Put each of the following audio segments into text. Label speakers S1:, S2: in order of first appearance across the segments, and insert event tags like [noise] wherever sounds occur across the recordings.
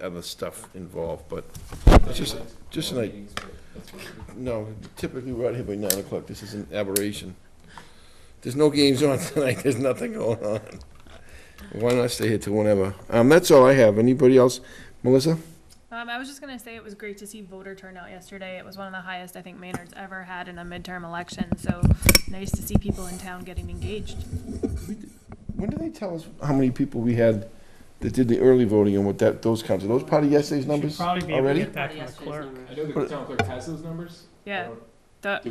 S1: other stuff involved, but it's just, just an idea. No, typically we're out here by nine o'clock, this is an aberration. There's no games on [laughs] tonight, there's nothing going on. Why not stay here till whenever? Um, that's all I have, anybody else? Melissa?
S2: Um, I was just gonna say it was great to see voter turnout yesterday. It was one of the highest I think Maynard's ever had in a midterm election, so nice to see people in town getting engaged.
S1: When do they tell us how many people we had that did the early voting and what that, those counts, are those part of yesterday's numbers
S3: Should probably be able to
S1: already?
S3: get that from the
S4: Yesterday's
S3: clerk.
S4: number.
S5: I know the
S1: But-
S5: town clerk has those numbers.
S2: Yeah,
S6: Do we, do
S1: Are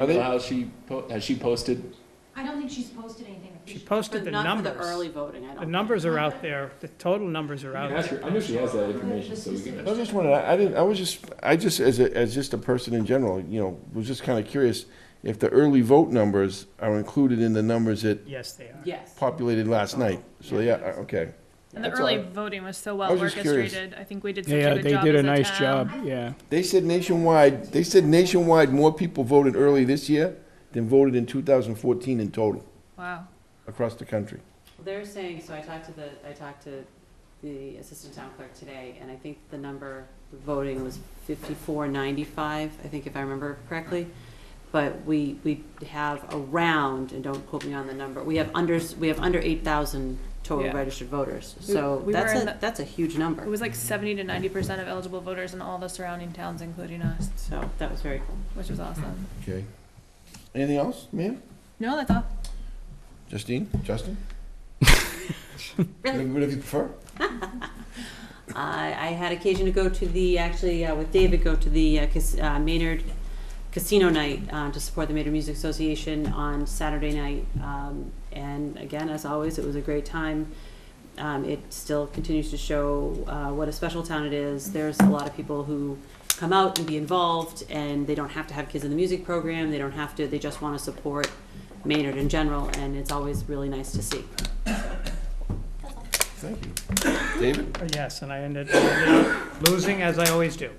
S6: you
S1: they-
S6: know how she, po- has she posted?
S7: I don't think she's posted anything.
S3: She
S4: But
S3: posted the
S4: not for
S3: numbers.
S4: the early voting, I don't.
S3: The
S4: think.
S3: numbers are out there, the total numbers are
S5: You
S3: out
S5: can
S3: there.
S5: ask her, I know she has that information, so we can
S1: I
S5: ask.
S1: was just wondering, I I didn't, I was just, I just, as a, as just a person in general, you know, was just kinda curious if the early vote numbers are included in the numbers that
S3: Yes, they are.
S4: Yes.
S1: populated last night. So, yeah, I- okay.
S2: and the
S1: That's
S2: early
S1: all.
S2: voting was so
S1: I
S2: well
S1: was just curious.
S2: orchestrated. I think we did such
S8: Yeah,
S2: a good
S8: they
S2: job
S8: did
S2: as
S8: a nice
S2: town.
S8: job, yeah.
S1: They said nationwide, they said nationwide, more people voted early this year than voted in two thousand fourteen in total
S2: Wow.
S1: across the country.
S4: They're saying, so I talked to the, I talked to the assistant town clerk today, and I think the number, the voting was fifty-four ninety-five, I think if I remember correctly. But we, we have around, and don't quote me on the number, we have under, we have under eight thousand total
S2: Yeah.
S4: registered voters. So
S2: we were
S4: that's
S2: in
S4: a,
S2: the-
S4: that's a huge
S2: It
S4: number,
S2: was like seventy to ninety percent of eligible voters in all the surrounding towns, including us,
S4: so that was very cool.
S2: which was awesome.
S1: Okay. Anything else, ma'am?
S2: No, that's all.
S1: Justine, Justin? Whatever whatever you prefer.
S4: I, I had occasion to go to the, actually, uh, with David, go to the uh, cas- uh, Maynard Casino Night uh, to support the Maynard Music Association on Saturday night. Um, and again, as always, it was a great time. Um, it still continues to show uh, what a special town it is. There's a lot of people who come out and be involved, and they don't have to have kids in the music program. They don't have to. They just want to support Maynard in general, and it's always really nice to see.
S1: Thank you. David?
S3: Yes, and I ended ended up losing as I always do.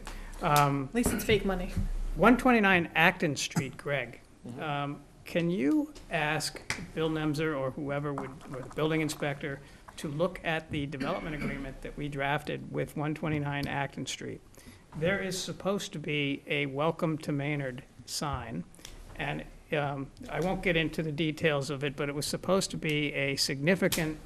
S3: Um,
S2: At least it's fake money.
S3: 129 Acton Street, Greg. Um, Can you ask Bill Nemzer or whoever would, or the building inspector, to look at the development agreement that we drafted with 129 Acton Street? There is supposed to be a Welcome to Maynard sign, and um, I won't get into the details of it, but it was supposed to be a significant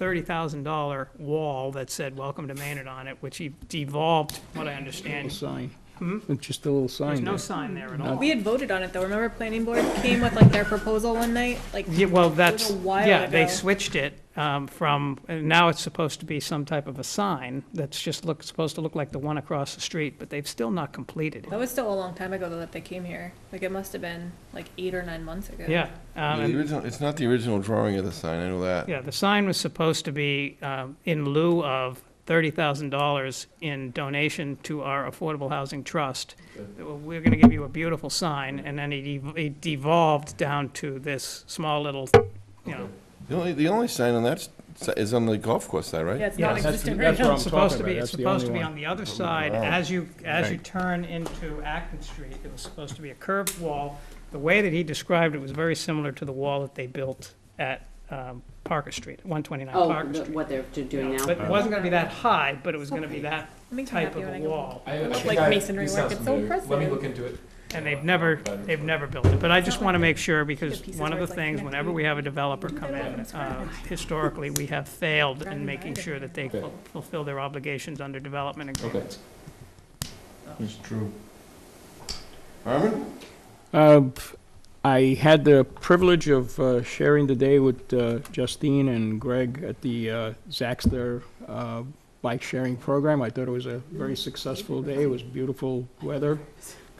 S3: $30,000 wall that said Welcome to Maynard on it, which he devolved, from what I
S8: Little
S3: understand.
S8: sign,
S1: Hmm?
S8: just a little
S3: There's
S8: sign
S3: no
S8: there.
S3: sign there at all.
S2: We had voted on it though. Remember planning board came with like their proposal one night? Like
S3: Yeah, well, that's,
S2: a while
S3: yeah, they
S2: ago.
S3: switched it um, from, and now it's supposed to be some type of a sign that's just look, supposed to look like the one across the street, but they've still not completed it.
S2: that was still a long time ago though that they came here. Like it must have been like eight or nine months ago.
S3: Yeah, um,
S1: The
S3: and-
S1: original, it's not the original drawing of the sign, I know that.
S3: yeah, the sign was supposed to be um, in lieu of $30,000 in donation to our Affordable Housing Trust. We're going to give you a beautiful sign, and then it ev- it devolved down to this small little, you know,
S1: The only, the only sign on that s- is on the golf course side, right?
S2: Yeah, it's
S3: Yeah,
S2: not
S3: that's-
S2: existing right
S8: that's
S2: now.
S8: what I'm
S3: It's supposed to
S8: talking
S3: be,
S8: about.
S3: it's
S8: That's the
S3: supposed to
S8: only
S3: be
S8: one.
S3: on the other side,
S1: Wow.
S3: as you, as you
S1: Okay.
S3: turn into Acton Street, it was supposed to be a curved wall. The way that he described it was very similar to the wall that they built at um, Parker Street, one twenty-nine
S4: Oh,
S3: Parker
S4: the-
S3: Street.
S4: what they're do- doing now.
S3: But it wasn't gonna be that high, but it was gonna be that
S2: It makes me
S3: type
S2: happy
S3: of
S2: when
S3: a
S2: I go-
S3: wall,
S5: I- I
S2: Look
S5: think
S2: like
S5: I-
S2: masonry
S5: these
S2: work,
S5: sound
S2: it's so
S5: familiar. Let me
S2: impressive.
S5: look into it.
S3: and they've never, they've never built it. But I just wanna make sure, because
S2: The pieces
S3: one of
S2: where
S3: the
S2: it's like
S3: things, whenever we have a developer come in, uh, historically, we have failed in making sure that they
S5: Okay.
S3: ful- fulfill their obligations under development
S5: Okay.
S3: agreements.
S1: It's true. Armin?
S8: Uh, p- I had the privilege of uh, sharing the day with uh, Justine and Greg at the uh, Zaxter uh, bike sharing program. I thought it was a very successful day. It was beautiful weather.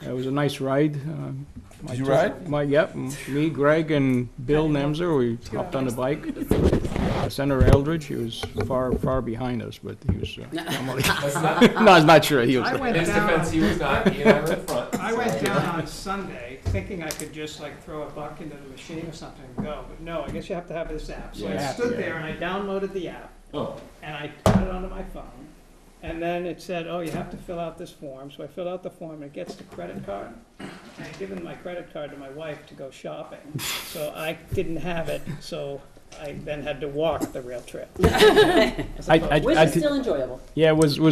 S8: It was a nice ride. Um, my
S1: Did you
S8: two-
S1: ride?
S8: My, yep, m- me, Greg, and Bill Nemzer, we hopped on the bike. Senator Eldridge, he was far, far behind us, but he was, uh,
S3: [laughs]
S5: That's not, in
S8: no, I was [laughs] not sure he was.
S3: I [laughs] went
S5: his
S3: down-
S5: defense, he was not, he and I were in front.
S3: I
S5: so-
S3: went down on Sunday thinking I could just like throw a buck into the machine or something and go, but no, I guess you have to have this app. So I
S5: Yeah.
S3: stood there and I downloaded the app
S5: Oh,
S3: and I put it onto my phone. And then it said, oh, you have to fill out this form. So I filled out the form and it gets the credit card. And I given my credit card to my wife to go shopping. So I didn't have it, so
S9: I then had to walk the rail trail.
S8: I, I,
S3: Which
S8: I
S3: is
S8: did-
S3: still enjoyable.
S8: yeah, it was, was